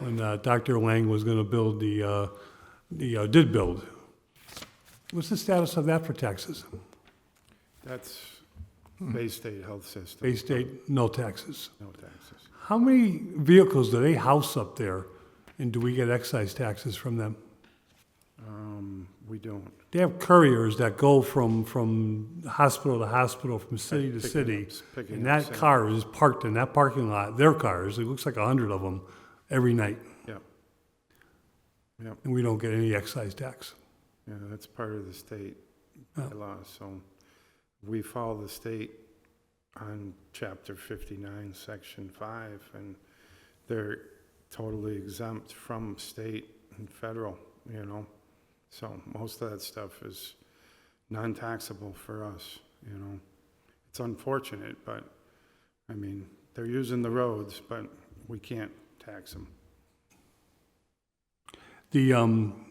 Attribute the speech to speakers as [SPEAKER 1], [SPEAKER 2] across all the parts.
[SPEAKER 1] when uh, Dr. Lang was going to build the, uh, the, uh, did build. What's the status of that for taxes?
[SPEAKER 2] That's Bay State Health System,
[SPEAKER 1] Bay State, no taxes.
[SPEAKER 2] no taxes.
[SPEAKER 1] How many vehicles do they house up there, and do we get excise taxes from them?
[SPEAKER 2] Um, We don't.
[SPEAKER 1] They have couriers that go from, from hospital to hospital, from city to
[SPEAKER 2] Picking
[SPEAKER 1] city.
[SPEAKER 2] up- picking
[SPEAKER 1] And
[SPEAKER 2] up
[SPEAKER 1] that
[SPEAKER 2] samples.
[SPEAKER 1] car is parked in that parking lot, their cars, it looks like a hundred of them, every night.
[SPEAKER 2] Yeah. Yeah,
[SPEAKER 1] And we don't get any excise tax.
[SPEAKER 2] yeah, that's part of the state
[SPEAKER 1] Oh.
[SPEAKER 2] law, so we follow the state on chapter fifty-nine, section five, and they're totally exempt from state and federal, you know? So most of that stuff is non-taxable for us, you know? It's unfortunate, but, I mean, they're using the roads, but we can't tax them.
[SPEAKER 1] The um,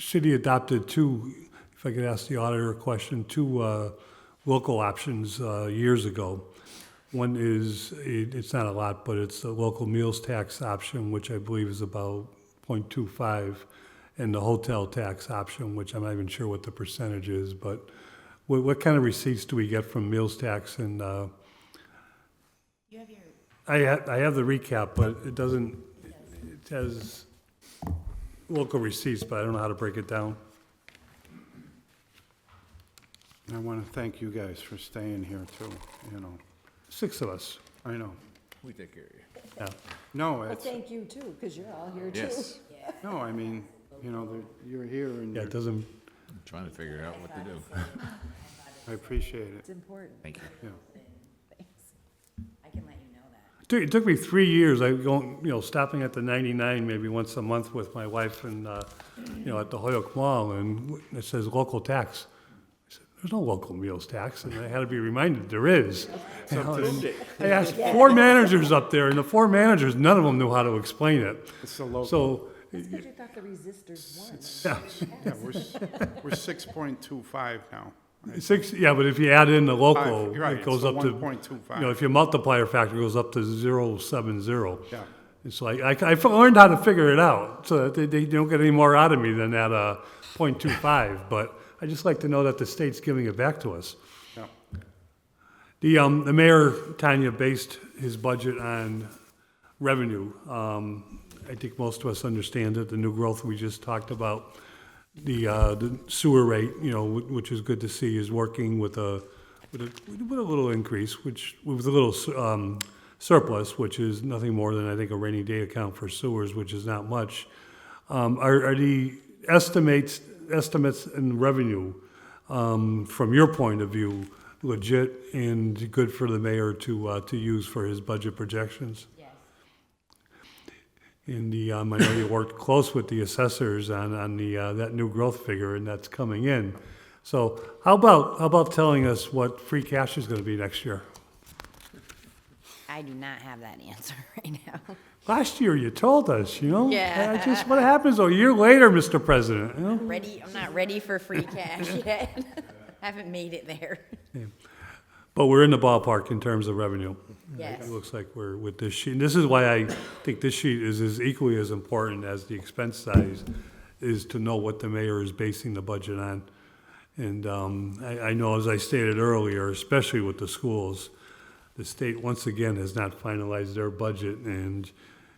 [SPEAKER 1] city adopted two, if I could ask the auditor a question, two uh, local options uh, years ago. One is, it- it's not a lot, but it's the local meals tax option, which I believe is about 0.25, and the hotel tax option, which I'm not even sure what the percentage is, but what what kind of receipts do we get from meals tax and uh,
[SPEAKER 3] You have your,
[SPEAKER 1] I have, I have the recap, but it doesn't, it has local receipts, but I don't know how to break it down.
[SPEAKER 2] I want to thank you guys for staying here too, you know.
[SPEAKER 1] Six of us,
[SPEAKER 2] I know.
[SPEAKER 4] We take care of you.
[SPEAKER 1] yeah.
[SPEAKER 2] No,
[SPEAKER 5] Well,
[SPEAKER 2] it's,
[SPEAKER 5] thank you too, because you're all here too.
[SPEAKER 4] Yes,
[SPEAKER 2] no, I mean, you know, they're- you're here and
[SPEAKER 1] Yeah, it
[SPEAKER 2] you're-
[SPEAKER 1] doesn't,
[SPEAKER 4] I'm trying to figure out what to do.
[SPEAKER 2] I appreciate it,
[SPEAKER 5] It's important.
[SPEAKER 4] Thank you.
[SPEAKER 2] yeah.
[SPEAKER 3] I can let you know that.
[SPEAKER 1] it took- it took me three years, I go, you know, stopping at the 99 maybe once a month with my wife and, uh, you know, at the Hoyok Mall, and it says local tax. I said, There's no local meals tax, and I had to be reminded, there is. You know, and I asked four managers up there, and the four managers, none of them knew how to explain it.
[SPEAKER 2] It's the local,
[SPEAKER 1] So,
[SPEAKER 5] Because you thought the resistors won.
[SPEAKER 1] yeah.
[SPEAKER 2] yeah, we're, s- we're 6.25 now.
[SPEAKER 1] Six, yeah, but if you add in the local,
[SPEAKER 2] Five, you're right,
[SPEAKER 1] it
[SPEAKER 2] it's
[SPEAKER 1] goes
[SPEAKER 2] the
[SPEAKER 1] up to, you
[SPEAKER 2] 1.25.
[SPEAKER 1] know, if your multiplier factor goes up to zero seven zero.
[SPEAKER 2] Yeah.
[SPEAKER 1] It's like, I, I f- learned how to figure it out, so that they, they don't get any more out of me than that, uh, point two five, but I just like to know that the state's giving it back to us.
[SPEAKER 2] Yeah.
[SPEAKER 1] The, um, the mayor, Tanya, based his budget on revenue. Um, I think most of us understand that the new growth we just talked about, the, uh, the sewer rate, you know, wh- which is good to see, is working with a, with a, with a little increase, which, with a little, su- um, surplus, which is nothing more than, I think, a rainy day account for sewers, which is not much. Um, are, are the estimates, estimates in revenue, um, from your point of view, legit and good for the mayor to, uh, to use for his budget projections?
[SPEAKER 3] Yes.
[SPEAKER 1] And the, um, I know you worked close with the assessors on, on the, uh, that new growth figure and that's coming in. So how about, how about telling us what free cash is gonna be next year?
[SPEAKER 3] I do not have that answer right now.
[SPEAKER 1] Last year you told us, you know?
[SPEAKER 3] Yeah.
[SPEAKER 1] I just, what happens a year later, Mr. President, you know?
[SPEAKER 3] Ready, I'm not ready for free cash yet. Haven't made it there.
[SPEAKER 1] But we're in the ballpark in terms of revenue.
[SPEAKER 3] Yes.
[SPEAKER 1] It looks like we're with this sheet, and this is why I think this sheet is as equally as important as the expense size, is to know what the mayor is basing the budget on. And um, I, I know, as I stated earlier, especially with the schools, the state once again has not finalized their budget, and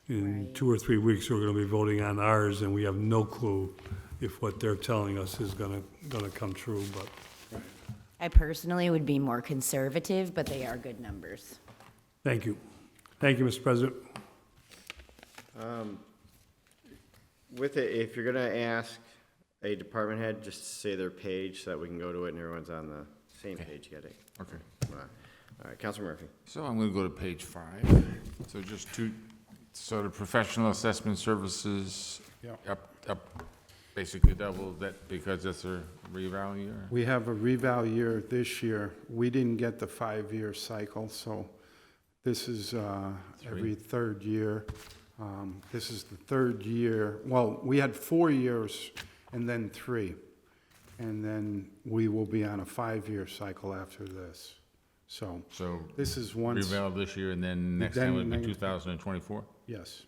[SPEAKER 1] in two or three weeks, we're gonna be voting on ours, and we have no clue if what they're telling us is gonna, gonna come true, but
[SPEAKER 3] I personally would be more conservative, but they are good numbers.
[SPEAKER 1] thank you. Thank you, Mr. President.
[SPEAKER 6] With it, if you're gonna ask a department head, just say their page so that we can go to it and everyone's on the same page getting.
[SPEAKER 4] Okay.
[SPEAKER 6] All right, Council Murphy.
[SPEAKER 4] So I'm gonna go to page five. So just two, so the professional assessment services.
[SPEAKER 2] Yeah.
[SPEAKER 4] Up, up, basically double that because that's a revalue year.
[SPEAKER 2] We have a reval year this year. We didn't get the five-year cycle, so this is uh, every third year. Um, This is the third year, well, we had four years and then three. And then we will be on a five-year cycle after this. So
[SPEAKER 4] So
[SPEAKER 2] this is once,
[SPEAKER 4] revalue this year and then next
[SPEAKER 2] Then
[SPEAKER 4] time would be
[SPEAKER 2] neg-
[SPEAKER 4] two thousand and twenty-four?
[SPEAKER 2] yes,